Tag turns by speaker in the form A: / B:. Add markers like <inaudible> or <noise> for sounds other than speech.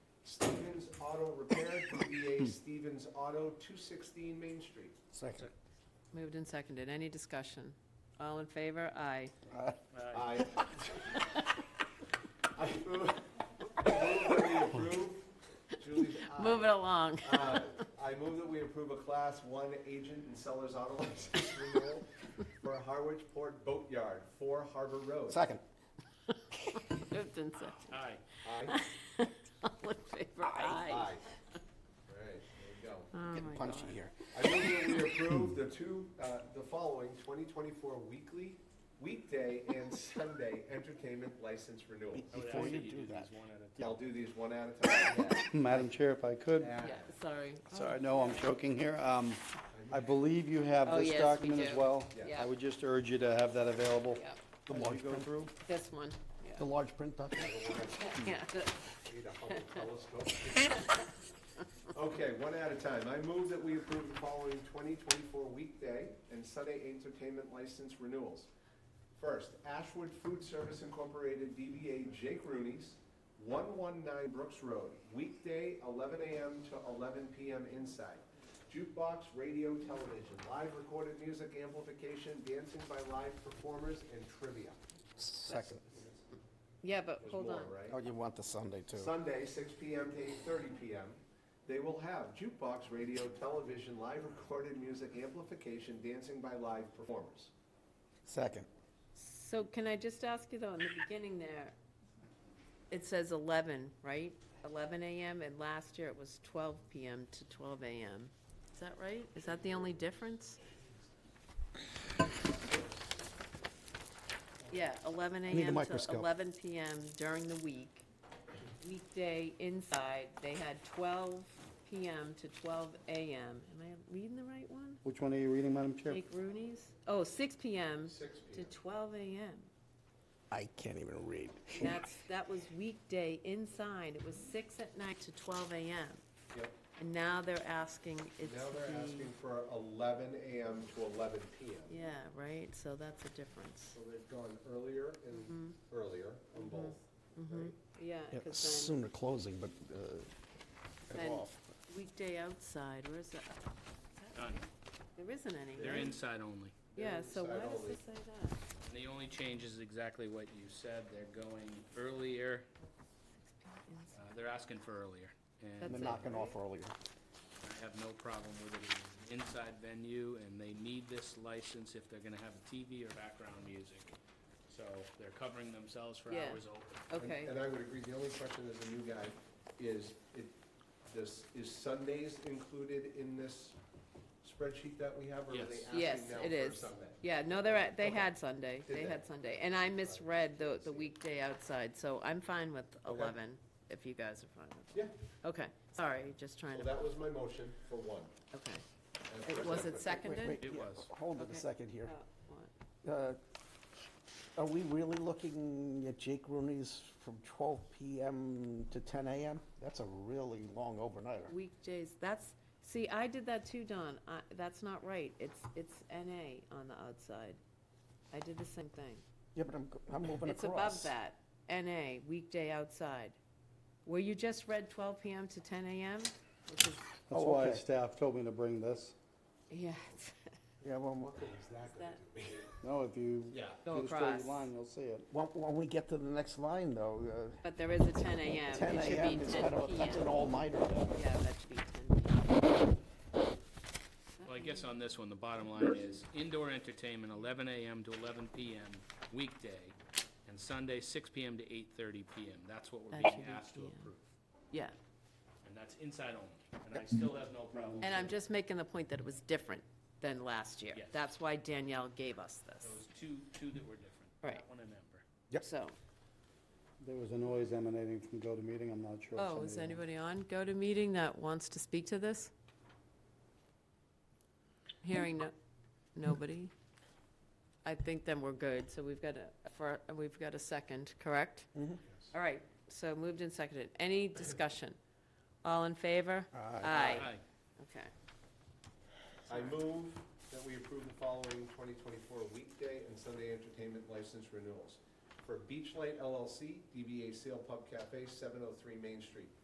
A: Auto Repair, DBA Stevens Auto, 216 Main Street.
B: Second.
C: Moved and seconded. Any discussion? All in favor? Aye.
A: I I move move that we approve, Julie's aye.
C: Move it along. <laughs>
A: Uh, I move that we approve a Class 1 agent and seller's auto license renewal for Harwich Port Boatyard, 4 Harbor Road.
B: Second.
C: Moved and seconded.
D: Aye.
A: Aye?
C: All in favor? Aye.
A: Aye. All right, there you go.
C: Oh, my
B: Getting punchy
C: God.
B: here.
A: I move that we approve the two, uh, the following 2024 weekly, weekday and Sunday entertainment license renewal.
D: I would
B: Before
D: ask
B: you
D: that
B: do
D: these
B: that.
D: one at a
A: I'll do these one at a time.
B: Madam Chair, if I could,
A: Yeah.
C: Yeah, sorry. Oh,
B: sorry, no, I'm joking here. Um, I believe you have
C: Oh,
B: this
C: yes, we
B: document
C: do.
B: as well.
A: Yeah.
C: Yeah.
B: I would just urge you to have that available
C: yeah.
B: as you go through.
C: This one, yeah.
B: large print document.
C: <laughs> Yeah, that-
A: Need a Hubble telescope. <laughs> Okay, one at a time. I move that we approve the following 2024 weekday and Sunday entertainment license renewals. First, Ashwood Food Service Incorporated, DBA Jake Rooney's, 119 Brooks Road, weekday 11 a.m. to 11 p.m. inside. Jukebox, radio, television, live recorded music amplification, dancing by live performers, and trivia.
B: Second.
C: yeah, but
A: There's
C: hold
A: more,
C: on.
A: right?
B: Oh, you want the Sunday too.
A: Sunday, six PM to eight thirty PM. They will have jukebox, radio, television, live recorded music, amplification, dancing by live performers.
B: Second.
C: So can I just ask you though, in the beginning there, it says 11, right? 11 AM, and last year it was 12 PM to 12 AM. Is that right? Is that the only difference? Yeah, 11
B: need a
C: AM to
B: microscope.
C: 11 PM during the week. Weekday inside, they had 12 PM to 12 AM. Am I reading the right one?
B: Which one are you reading, Madam Chair?
C: Jake Rooney's? Oh, 6 PM
A: Six PM.
C: to 12 AM.
B: I can't even read.
C: That's, that was weekday inside, it was six at night to twelve AM.
A: Yep.
C: And now they're asking it's
A: Now they're asking
C: the,
A: for eleven AM to eleven PM.
C: yeah, right, so that's a difference.
A: So they've gone earlier and
C: Mm-hmm.
A: earlier on both. right?
C: Yeah, because then
B: Sooner closing, but, uh,
C: Then-
B: off.
C: weekday outside, where's that?
D: Done.
C: There isn't
D: They're
C: any,
D: inside only.
C: yeah, so why
A: Inside
C: does
A: only.
C: it say that?
D: And the only change is exactly what you said. They're going earlier, uh, they're asking for earlier.
B: and
D: And
B: they're
C: That's it,
B: knocking off earlier.
D: I have no problem with it. It's an inside venue and they need this license if they're gonna have a TV or background music. So they're covering themselves for
C: Yeah.
D: hours open.
A: And-
C: Okay,
A: And I would agree, the only question as a new guy is, it, this, is Sundays included in this spreadsheet that we have? Or are
D: Yes.
A: they
C: yes,
A: asking now
C: it
A: for
C: is.
A: Sunday?
C: Yeah, no, they're, at- they
A: Okay.
C: had Sunday,
A: Did
C: they
A: they?
C: had Sunday, and I misread the, the weekday outside, so I'm fine with
A: Okay.
C: eleven, if you guys are fine with
A: Yeah,
C: it. Okay, sorry, just trying
A: well,
C: to,
A: that was my motion for one.
C: okay. It- Was it
B: Wait,
C: seconded?
B: wait,
D: It
B: yeah,
D: was.
B: Hold it
C: Okay.
B: a second here.
C: Uh, what?
B: Uh, Are we really looking at Jake Rooney's from 12 PM to 10 AM? That's a really long overnighter.
C: Weekdays, that's, see, I did that too, Don. I- That's not right. It's, it's NA on the outside. I did the same thing.
B: Yeah, but I'm, g- I'm moving
C: It's
B: across.
C: above that, NA, weekday outside. Where you just read 12 PM to 10 AM, which is,
E: That's
B: Oh,
E: why
B: okay.
E: staff told me to bring this.
C: yeah, it's-
B: Yeah, well,
C: that,
E: No, if you
D: Yeah.
C: Go
E: do the
C: across.
E: straight line, you'll see it.
B: when, when we get to the next line though, uh,
C: but there is a 10 AM.
B: 10
C: It should
B: AM
C: be
B: is kind
C: 10
B: of, that's an
C: PM.
B: all-nighter.
C: Yeah, that should be 10 PM.
D: Well, I guess on this one, the bottom line is indoor entertainment, eleven AM to eleven PM weekday, and Sunday, six PM to eight thirty PM. That's what we're
C: That
D: being
C: should be
D: asked to
C: PM.
D: approve.
C: Yeah,
D: And that's inside only, and I still have no problem.
C: and I'm just making the point that it was different than last year.
D: Yes.
C: That's why Danielle gave us this.
D: Those two, two that were different.
C: Right.
D: That one and Ember.
B: Yep.
C: So,
E: There was a noise emanating from go to meeting, I'm not sure. if
C: Oh, is
E: somebody-
C: anybody on GoToMeeting that wants to speak to this? Hearing no, nobody? I think then we're good, so we've got a, for, we've got a second, correct? All right, so moved and seconded. Any discussion? All in favor? Aye.
D: Aye.
C: Okay.
A: <laughs> I move that we approve the following 2024 weekday and Sunday entertainment license renewals. For Beachlight LLC, DBA Sail Pub Cafe, 703 Main Street.